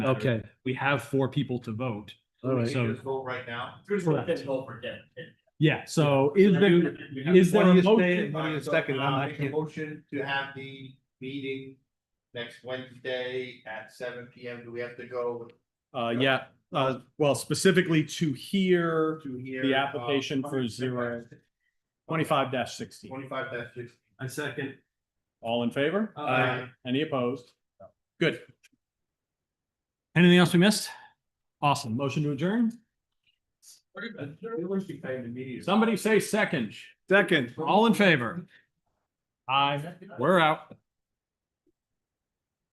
Okay, We have four people to vote. all right. So, Vote right now. Correct. over again. yeah, so is there, is there Why a you stay- motion? Wait a second, I'm not- Make a motion to have the meeting next Wednesday at seven P M. Do we have to go Uh, yeah, uh, well, specifically to hear to here? Uh, the application for zero twenty-five dash sixteen. Twenty-five dash six. I second. All in favor? Aye. Any opposed? Good. Anything else we missed? Awesome. Motion to adjourn? Somebody say second. Second. All in favor? Aye. We're out.